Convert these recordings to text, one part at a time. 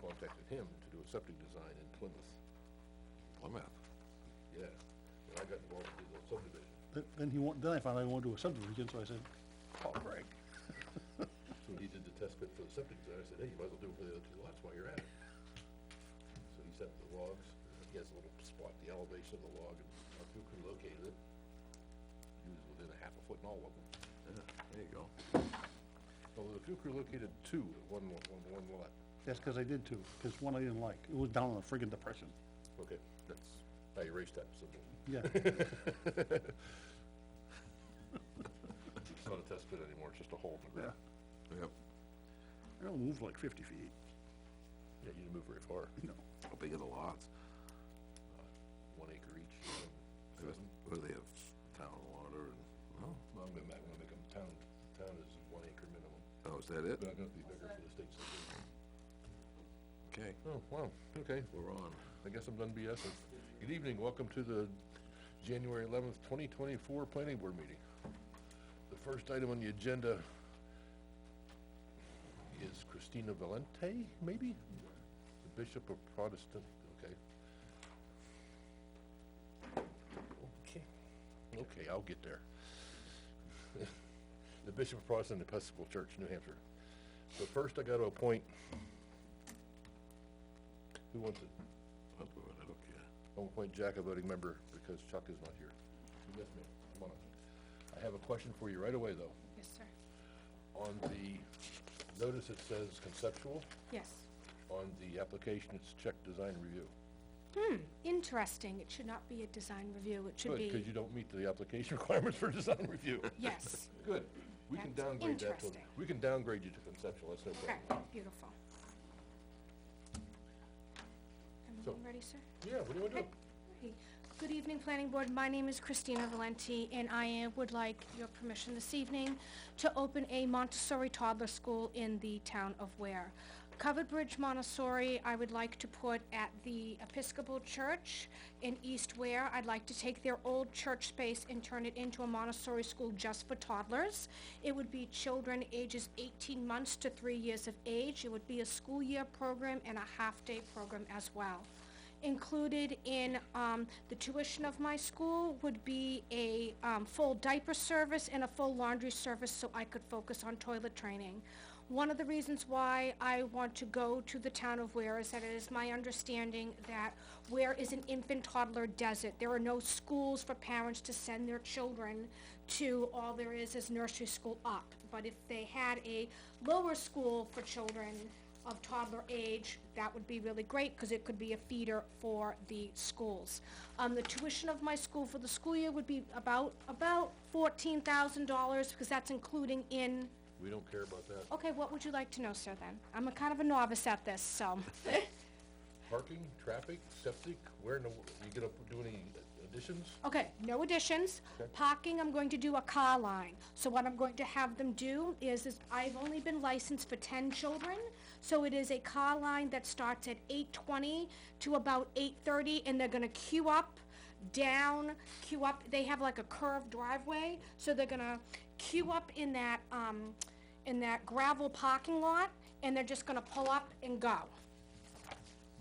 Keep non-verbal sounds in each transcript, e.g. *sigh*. contacted him to do a septic design in Plymouth. Plymouth. Yeah, and I got involved with the subdivision. Then- Then he want, then I found out he wanted to do a subdivision, so I said, call Greg. So he did the test pit for the septic design, I said, hey, you might as well do it for the other two lots while you're at it. So he set the logs, he has a little spot, the elevation of the log, and our crew crew located it. He was within a half a foot in all of them. There you go. Although the field crew located two at one, lo- one, one lot. That's because I did too, because one I didn't like. It was down in the friggin' depression. Okay, that's, I erased that symbol. Yeah, *laughs* It's not a test pit anymore, it's just a hole in the ground. Yep, I only moved like fifty feet, Yeah, you didn't move very far, you know. how big are the lots? one acre each. They must- What do they have, town water and, oh, Well, I'm gonna, ma- I'm gonna make them town, town is one acre minimum, oh, is that it? they're not gonna be bigger for the state system. Okay, Oh, wow, okay, we're on. I guess I'm done BSing. Good evening, welcome to the January eleventh, twenty twenty-four planning board meeting. The first item on the agenda is Christina Valente, maybe? The Bishop of Protestant, okay. Okay, okay, I'll get there. *laughs* The Bishop of Protestant Episcopal Church, New Hampshire. So first I gotta appoint, who wants it? I'll do it, I don't care. I'll appoint Jack a voting member because Chuck is not here. Yes, ma'am. Come on up. I have a question for you right away, though. Yes, sir. On the notice, it says conceptual. Yes. On the application, it's check design review. Interesting. It should not be a design review. It should Good, because be, you don't meet the application *laughs* requirements for design review. yes. Good. We can That's downgrade that to, interesting. we can downgrade you to conceptual, that's no Okay, problem. beautiful. So- Everyone ready, sir? Yeah, what do you want to do? Hey, Good evening, Planning Board. My name is Christina Valenti, and I uh, would like your permission this evening to open a Montessori toddler school in the town of Ware. Covered Bridge Montessori, I would like to put at the Episcopal Church in East Ware. I'd like to take their old church space and turn it into a Montessori school just for toddlers. It would be children ages 18 months to 3 years of age. It would be a school year program and a half-day program as well included in um, the tuition of my school would be a um, full diaper service and a full laundry service so I could focus on toilet training. One of the reasons why I want to go to the town of Ware is that it is my understanding that Ware is an infant toddler desert. There are no schools for parents to send their children to. All there is is nursery school up. But if they had a lower school for children, of toddler age, that would be really great, because it could be a feeder for the schools. Um, the tuition of my school for the school year would be about, about fourteen thousand dollars, because that's including in, We don't care about that. okay, what would you like to know, sir, then? I'm a kind of a novice at this, so. *laughs* Parking, traffic, septic, where in the, wo- you gonna do any additions? Okay, no additions. Parking, I'm going to do a car line. So what I'm going to have them do is, is I've only been licensed for ten children, so it is a car line that starts at eight twenty to about eight thirty, and they're gonna queue up, down, queue up. They have like a curved driveway, so they're gonna queue up in that, um, in that gravel parking lot, and they're just gonna pull up and go.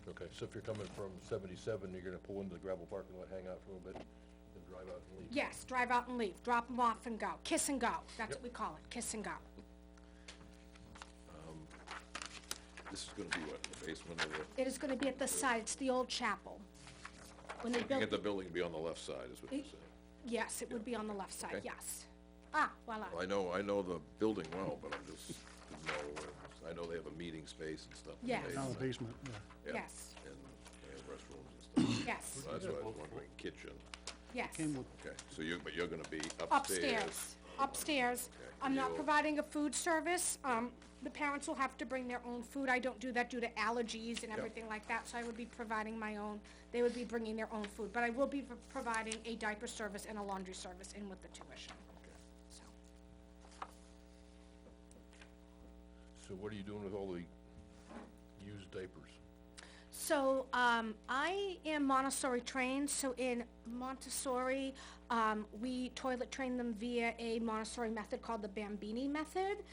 Okay, so if you're coming from seventy-seven, you're gonna pull into the gravel parking lot, hang out for a little bit, then drive out and leave. Yes, drive out and leave, drop them off and go, kiss and go. That's what we call it, kiss and go. This is gonna be what, in the basement of the, It is gonna be at the side, it's the old chapel. When they you get built, the building to be on the left side, is what you're Eh. saying. yes, it would be on the left side, Okay. yes. Ah, voila, I know, I know the building well, but I'm just, didn't know, where- I know they have a meeting space and stuff. in the Yes. Down in the basement. basement, yeah. Yeah. yes, And they have restrooms and stuff. yes, So That's what I was wondering, kitchen. yes. Came with, Okay, so you, but you're gonna be upstairs. Upstairs, upstairs. Okay. I'm not You'll- providing a food service, um, the parents will have to bring their own food. I don't do that due to allergies and everything like that, so I would be providing my own, they would be bringing their own food. But I will be pro- providing a diaper service and a laundry service in with the tuition, so. So what are you doing with all the used diapers? So, um, I am Montessori trained, so in Montessori, um, we toilet train them via a Montessori method called the Bambini method.